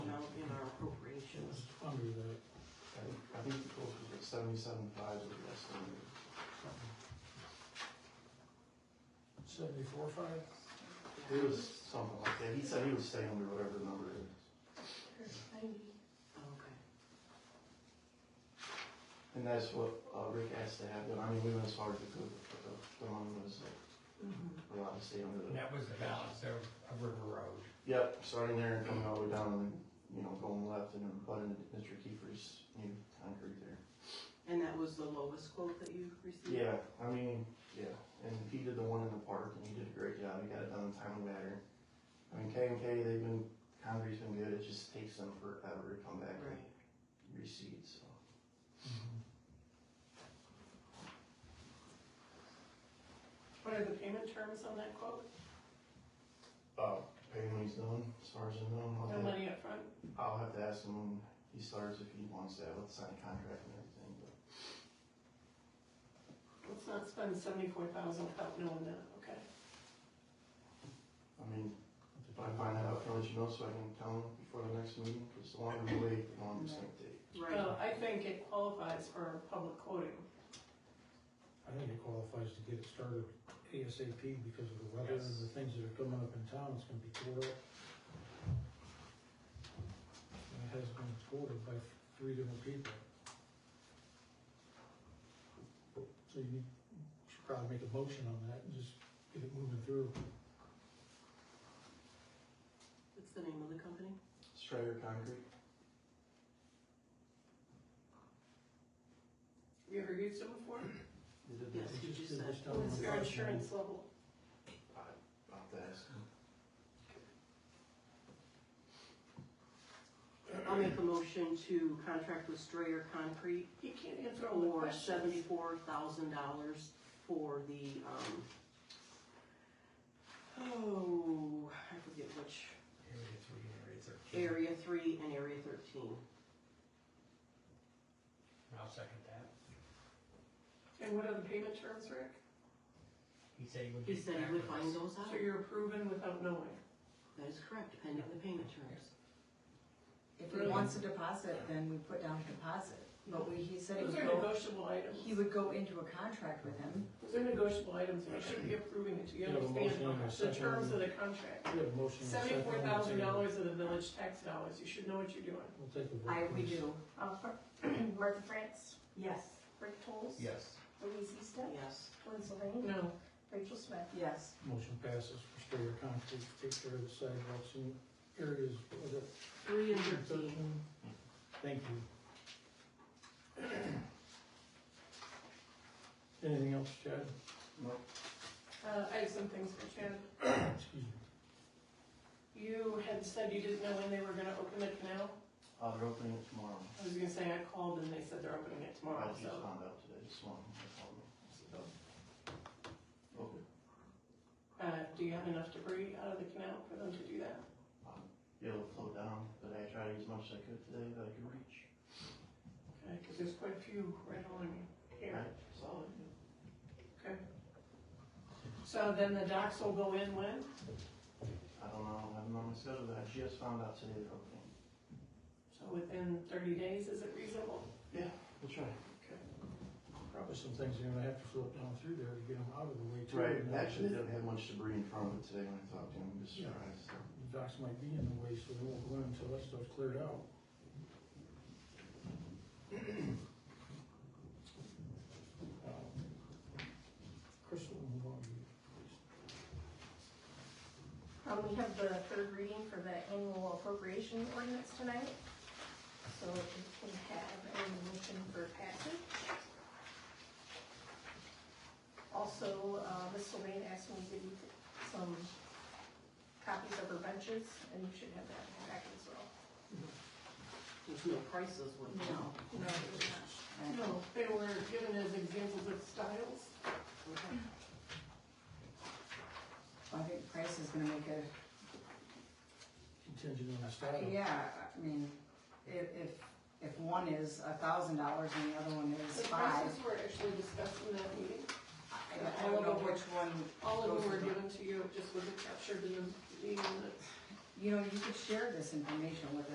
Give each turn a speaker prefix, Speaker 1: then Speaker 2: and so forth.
Speaker 1: seventy-seven five is the estimate.
Speaker 2: Seventy-four five?
Speaker 1: It was something like that, he said he was staying under whatever the number is.
Speaker 3: Okay.
Speaker 1: And that's what, uh, Rick asked to have, done. I mean, we went as far as we could, but the, the loan was, uh,
Speaker 4: Mm-hmm.
Speaker 1: allowed to stay under the.
Speaker 5: And that was the balance of, of River Road.
Speaker 1: Yep, starting there and coming all the way down and, you know, going left and then butting into Mr. Kiefer's new concrete there.
Speaker 3: And that was the lowest quote that you received?
Speaker 1: Yeah, I mean, yeah, and he did the one in the park, and he did a great job, he got it done in a timely manner. I mean, K and K, they've been, concrete's been good, it just takes them forever to come back
Speaker 3: Right.
Speaker 1: and reseed, so.
Speaker 3: What are the payment terms on that quote?
Speaker 1: Uh, paying when he's done, as far as I know, I'll
Speaker 3: No
Speaker 1: have,
Speaker 3: money upfront?
Speaker 1: I'll have to ask him when he starts if he wants that, with sign a contract and everything, but.
Speaker 3: Let's not spend seventy-four thousand without knowing that, okay?
Speaker 1: I mean, if I find that out, I'll let you know, so I can tell him before the next meeting, because the longer we wait, the longer it's gonna take.
Speaker 4: Oh.
Speaker 3: Well, I think it qualifies for public quoting.
Speaker 2: I think it qualifies to get it started ASAP because of the weather and the things that are coming up in town, it's gonna be tore up. And it has been quoted by three different people. So you need- should probably make a motion on that and just get it moving through.
Speaker 3: What's the name of the company?
Speaker 1: Strider Concrete?
Speaker 3: Have you ever used them before?
Speaker 1: They did
Speaker 3: Yes,
Speaker 1: that.
Speaker 3: you
Speaker 2: Just
Speaker 3: just
Speaker 2: do
Speaker 3: said.
Speaker 2: this down
Speaker 3: What's
Speaker 2: the
Speaker 3: your
Speaker 2: bottom.
Speaker 3: insurance level?
Speaker 1: I'll have to ask him.
Speaker 4: I'll make a motion to contract with Strayer Concrete
Speaker 3: He can't answer all the
Speaker 4: for
Speaker 3: questions.
Speaker 4: seventy-four thousand dollars for the, um, oh, I forget which,
Speaker 5: Area three and area thirteen.
Speaker 4: Area Three and Area Thirteen.
Speaker 5: And I'll second that.
Speaker 3: And what are the payment terms, Rick?
Speaker 5: He said he would
Speaker 4: He
Speaker 5: get
Speaker 4: said
Speaker 5: back
Speaker 4: he
Speaker 5: with
Speaker 4: would
Speaker 5: us.
Speaker 4: find those out.
Speaker 3: So you're approving without knowing?
Speaker 4: That is correct, depending on the payment terms.
Speaker 6: If he wants a deposit, then we put down a deposit, but we, he said he
Speaker 3: Those
Speaker 6: would
Speaker 3: are
Speaker 6: go,
Speaker 3: negotiable items.
Speaker 6: he would go into a contract with him.
Speaker 3: Those are negotiable items, we should be approving it, do you
Speaker 2: Yeah, the motion and the
Speaker 3: understand the
Speaker 2: second.
Speaker 3: terms of the contract?
Speaker 2: We have a motion. and a second.
Speaker 3: Seventy-four thousand dollars of the village tax dollars, you should know what you're doing.
Speaker 2: We'll take a vote.
Speaker 6: I, we
Speaker 2: please.
Speaker 6: do,
Speaker 7: Uh, Martha France,
Speaker 6: yes,
Speaker 7: Rick Tolz.
Speaker 5: Yes.
Speaker 7: Louise Easton.
Speaker 4: Yes.
Speaker 7: Lindsay Lane.
Speaker 3: No,
Speaker 7: Rachel Smith.
Speaker 6: yes.
Speaker 2: Motion passes for Strayer Concrete to take care of the sidewalks in areas, was it
Speaker 4: Three and thirteen.
Speaker 2: thirteen? Thank you. Anything else, Chad?
Speaker 3: uh, I have some things for Chad.
Speaker 2: Excuse me.
Speaker 3: You had said you didn't know when they were gonna open the canal.
Speaker 1: Uh, they're opening it tomorrow.
Speaker 3: I was gonna say, I called and they said they're opening it
Speaker 1: I
Speaker 3: tomorrow,
Speaker 1: just
Speaker 3: so.
Speaker 1: found out today, this morning, they called me. Okay.
Speaker 3: Uh, do you have enough debris out of the canal for them to do that?
Speaker 1: Um, It'll flow down, but I tried as much as I could today that I could reach.
Speaker 3: Okay, cause there's quite a few right along here,
Speaker 1: Right, Solid.
Speaker 3: okay? So then the docks will go in when?
Speaker 1: I don't know, I haven't on my schedule, but I just found out today they're opening.
Speaker 3: So within thirty days, is it reasonable?
Speaker 1: We'll try.
Speaker 2: Probably some things you're gonna have to float down through there to get them out of the way too.
Speaker 1: Right,
Speaker 2: And
Speaker 1: actually, they don't have much debris in front of it today when I talked to him, I'm just
Speaker 2: Yeah.
Speaker 1: surprised, so.
Speaker 2: The docks might be in the way, so they won't go in until that stuff's cleared out. Um, Crystal, move on to you, please.
Speaker 7: Um, we have the third reading for the annual appropriation ordinance tonight. So if you can have a motion for passage. Also, uh, Ms. Lorraine asked me to give you some copies of her benches, and you should have that in your packet as well.
Speaker 4: There's no prices with them.
Speaker 3: No,
Speaker 6: Right.
Speaker 3: no, they were given as examples of styles.
Speaker 4: Okay.
Speaker 6: I think price is gonna make a
Speaker 2: Contingent on the style.
Speaker 6: Yeah, I mean, if, if, if one is a thousand dollars and the other one is
Speaker 3: The
Speaker 6: five,
Speaker 3: prices were actually discussed in that meeting.
Speaker 6: I don't know which one,
Speaker 3: All of them were given to you, it just wasn't captured in the meeting minutes.
Speaker 6: you know, you could share this information with